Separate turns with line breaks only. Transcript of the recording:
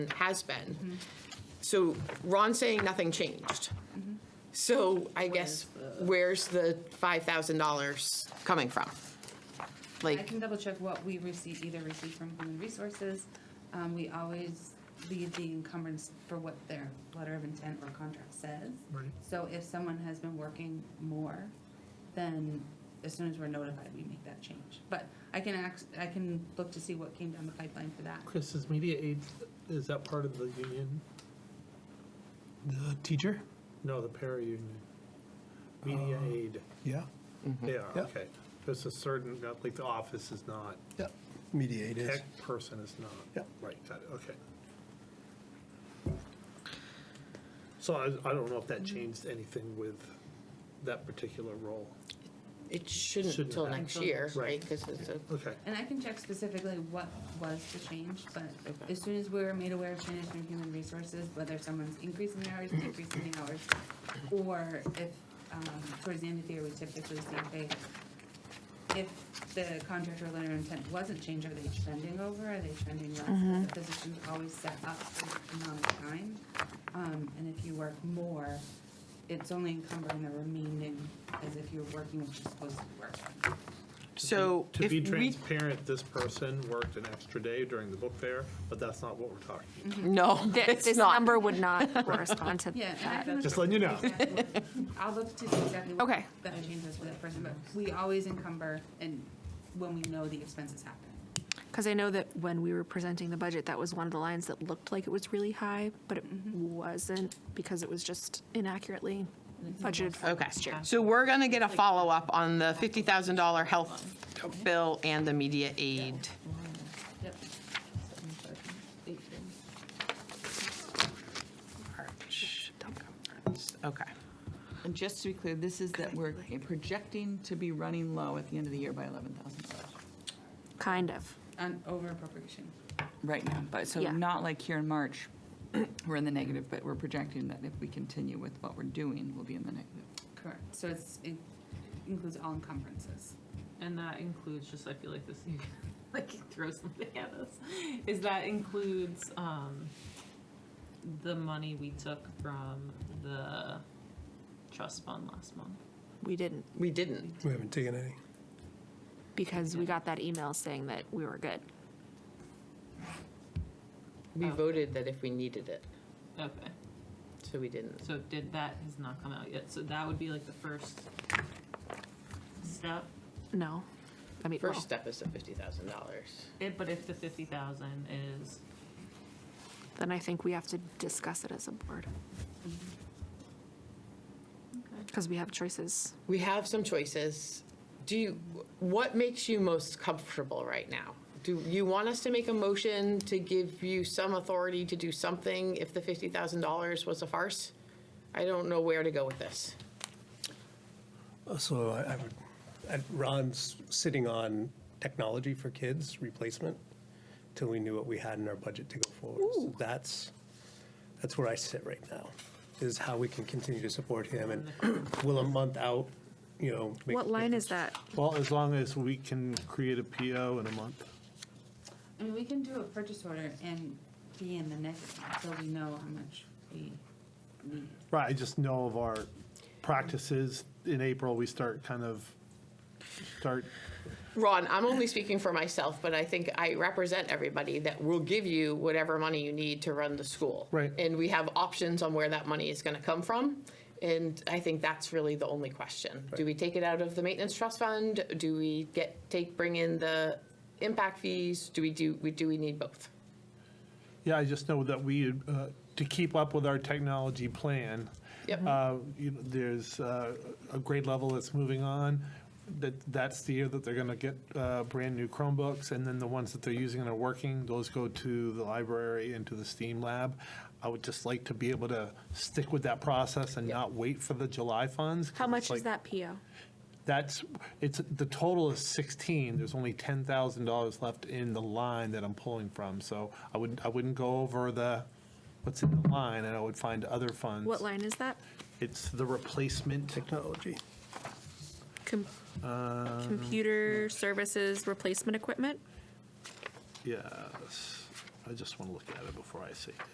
has been. So Ron's saying nothing changed. So I guess, where's the $5,000 coming from?
I
Like,
can double check what we receive, either receive from Human Resources. Um, we always leave the encumbrance for what their letter of intent or contract says.
Right.
So if someone has been working more, then as soon as we're notified, we make that change. But I can act, I can look to see what came down the pipeline for that.
Chris, is media aid, is that part of the union?
The teacher?
No, the para-union. Media aid,
Yeah,
Mm-hmm.
yeah,
Yeah.
okay. There's a certain, not like the office is not,
yeah. Mediate is.
tech person is not.
Yeah.
Right, got it, okay. So I, I don't know if
Mm-hmm.
that changed anything with that particular role.
it shouldn't
Shouldn't
until
have.
next year, right?
Right.
Because it's a,
Okay,
And I can check specifically what was the change, but
Okay.
as soon as we're made aware of changes from human resources, whether someone's increasing their hours, decreasing the hours, or if, um, towards the end of the year, we typically see if they, if the contractor letter of intent wasn't changed, are they trending over, are they trending less? The position's always set up for the amount of time, um, and if you work more, it's only encumbering the remaining as if you're working what you're supposed to be working.
so
to
if
be
we,
transparent, this person worked an extra day during the book fair, but that's not what we're talking about.
no,
Th-
it's
This
not.
number would not correspond to
Yeah, and I
that.
can
Just letting you know.
Exactly. I'll look to see exactly what
Okay.
that changes for that person, but we always encumber and when we know the expenses happen.
Because I know that when we were presenting the budget, that was one of the lines that looked like it was really high, but it wasn't because it was just inaccurately budgeted for
Okay,
last year.
so we're going to get a follow-up on the $50,000 health bill and the media aid.
Yep.
Oh. Okay,
And just to be clear, this is that we're projecting to be running low at the end of the year by $11,000
Kind of.
On over appropriation.
right now. But so
Yeah.
not like here in March, we're in the negative, but we're projecting that if we continue with what we're doing, we'll be in the negative.
Correct. So it's, it includes all encumbrances.
and that includes just I feel like this you like you throw something at us. Is that includes um the money we took from the trust fund last month.
We didn't
we didn't.
We haven't taken any.
because we got that email saying that we were good.
We
Oh.
voted that if we needed it,
Okay.
so we didn't.
So did that has not come out yet. So that would be like the first step.
No. I mean, well,
First step is the $50,000.
It, but if the fifty thousand is
then I think we have to discuss it as a board. Mm-hmm. Because we have choices.
we have some choices. Do you, what makes you most comfortable right now? Do you want us to make a motion to give you some authority to do something if the $50,000 was a farce? I don't know where to go with this.
Uh, So I I would, and Ron's sitting on technology for kids replacement till we knew what we had in our budget to go forward. So That's, that's where I sit right now, is how we can continue to support him and will a month out, you know. make
What
a
line
difference?
is that?
Well, as long as we can create a PO in a month.
I mean, we can do a purchase order and be in the negative until we know how much we need.
Right, I just know of our practices, in April, we start kind of, start,
Ron, I'm only speaking for myself, but I think I represent everybody that will give you whatever money you need to run the school.
Right.
And we have options on where that money is going to come from. And I think that's really the only question. Do we take it out of the maintenance trust fund? Do we get, take, bring in the impact fees? Do we do, we, do we need both?
yeah, I just know that we, uh, to keep up with our technology plan.
Yep.
uh, you know, There's uh, a grade level that's moving on, that, that's the year that they're going to get uh, brand-new Chromebooks, and then the ones that they're using and are working, those go to the library and to the STEAM lab. I would just like to be able to stick with that process and not wait for the July funds. 'cause
How
it's
much is
like-
that PO?
That's, it's, the total is 16, there's only $10,000 left in the line that I'm pulling from, so I wouldn't, I wouldn't go over the, what's in the line, and I would find other funds.
What line is that?
It's the replacement,
Technology.
Com-
uh,
Computer services replacement equipment?
yes, I just want to look at it before I say.